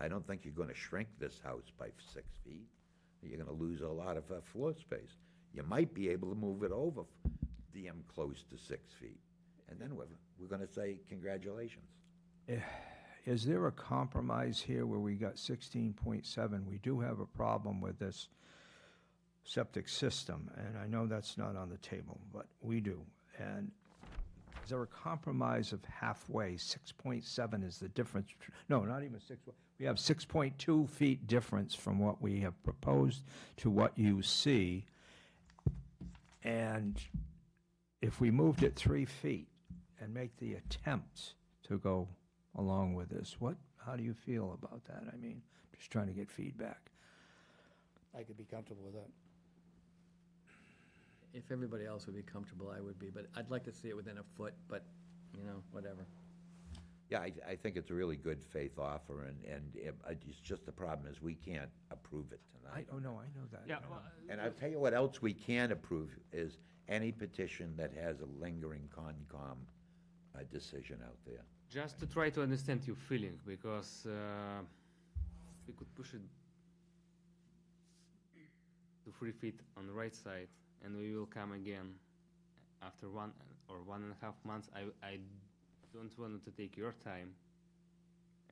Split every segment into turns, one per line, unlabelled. I don't think you're gonna shrink this house by six feet. You're gonna lose a lot of uh, floor space. You might be able to move it over, DM close to six feet. And then we're, we're gonna say congratulations.
Is there a compromise here where we got sixteen point seven? We do have a problem with this septic system, and I know that's not on the table, but we do. And is there a compromise of halfway? Six point seven is the difference, betw- no, not even six, we have six point two feet difference from what we have proposed to what you see. And if we moved it three feet and make the attempt to go along with this, what, how do you feel about that? I mean, just trying to get feedback.
I could be comfortable with that.
If everybody else would be comfortable, I would be, but I'd like to see it within a foot, but, you know, whatever.
Yeah, I, I think it's a really good faith offer, and, and it- it's just the problem is we can't approve it
I,
tonight.
oh, no, I know that.
Yeah,
I know.
well,
And I'll tell you what else we can approve is any petition that has a lingering Concom uh, decision out there.
just to try to understand your feeling, because uh, we could push it to three feet on the right side, and we will come again after one or one and a half months. I, I don't want to take your time,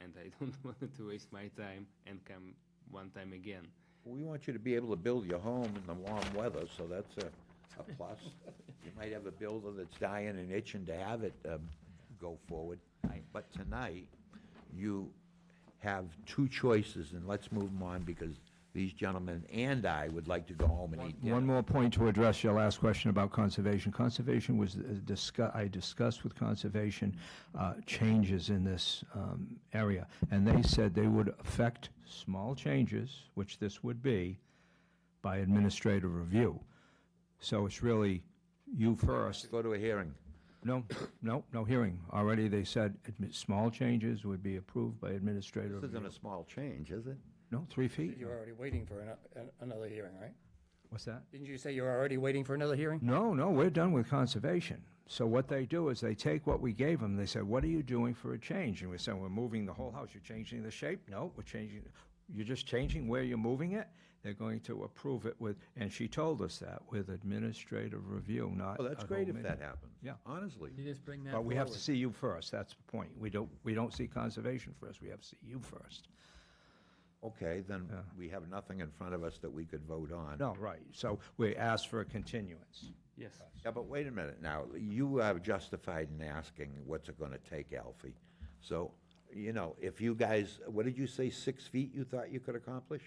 and I don't want to waste my time and come one time again.
We want you to be able to build your home in the warm weather, so that's a, a plus. You might have a builder that's dying and itching to have it, um, go forward. But tonight, you have two choices, and let's move them on, because these gentlemen and I would like to go home and eat dinner.
One more point to address your last question about conservation. Conservation was uh, discuss, I discussed with conservation uh, changes in this um, area, and they said they would affect small changes, which this would be, by administrative review. So it's really you first.
Go to a hearing.
No, no, no hearing. Already they said admi- small changes would be approved by administrative.
This isn't a
review.
small change, is it?
No, three feet?
You're already waiting for ano- an- another hearing, right?
What's that?
Didn't you say you're already waiting for another hearing?
No, no, we're done with conservation. So what they do is they take what we gave them, they said, what are you doing for a change? And we said, we're moving the whole house, you're changing the shape? No, we're changing, you're just changing where you're moving it? They're going to approve it with, and she told us that, with administrative review, not.
Well, that's
a
great
home
if that
meeting.
happens.
Yeah.
Honestly.
You just bring that
But we have to
forward.
see you first, that's the point. We don't, we don't see conservation first, we have to see you first.
Okay, then we have nothing in front of us that we could vote on.
No, right, so we asked for a continuance.
Yes.
Yeah, but wait a minute now. You are justified in asking what's it gonna take, Alfie. So, you know, if you guys, what did you say, six feet you thought you could accomplish?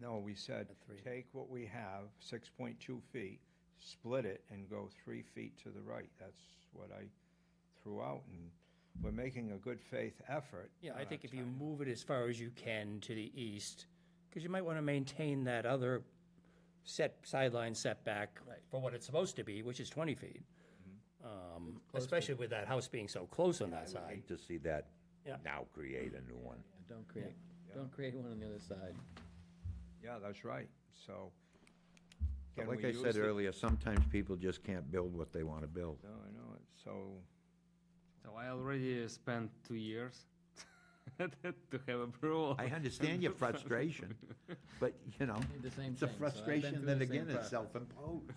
No, we said, take what we have, six point two feet, split it and go three feet to the right. That's what I threw out and we're making a good faith effort. Uh,
Yeah,
We're
I
not
think if you
trying-
move it as far as you can to the east, because you might want to maintain that other set, sideline setback for what it's supposed to be, which is 20 feet.
Mm-hmm.
Um, Especially with that house being so close on that
I
side.
hate to see that
Yeah.
now create a new one.
Don't create, don't create one on the other side.
Yeah, that's right, so.
But
can
Like
we
I
use
said
the-
earlier, sometimes people just can't build what they wanna build.
No, I know it, so,
So I already spent two years to have approval.
I understand your frustration, but, you know,
Did the same
it's
thing, so
a
I've been
frustration
through
that
the same
again is
process.
self-imposed.
If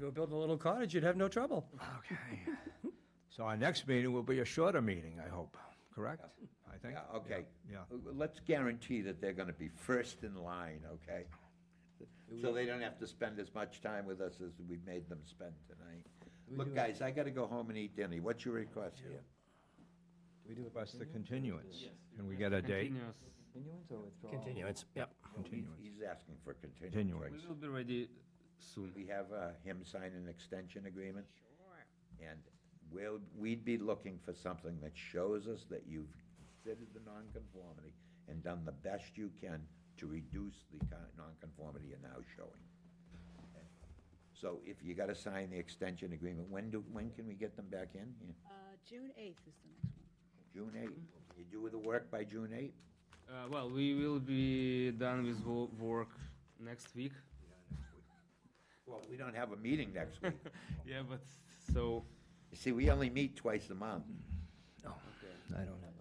you were building a little cottage, you'd have no trouble.
okay. So our next meeting will be a shorter meeting, I hope, correct? I think.
Yeah, okay.
Yeah.
Let's guarantee that they're gonna be first in line, okay? So they don't have to spend as much time with us as we've made them spend tonight. Look, guys, I gotta go home and eat dinner. What's your request here?
We do request the continuance. Can we get a date?
Continuous.
Continuance or withdrawal?
Continuance, yep.
Continuance.
He's asking for continuance.
Continuance.
We will be ready soon.
We have uh, him sign an extension agreement. Sure. And we'll, we'd be looking for something that shows us that you've considered the nonconformity and done the best you can to reduce the kind of nonconformity you're now showing. So if you gotta sign the extension agreement, when do, when can we get them back in? Yeah,
Uh, June 8th is the next one.
June eighth? You do the work by June eighth?
Uh, well, we will be done with wo- work next week.
Well, we don't have a meeting next week.
Yeah, but so
You see, we only meet twice a month.
I don't have
uh,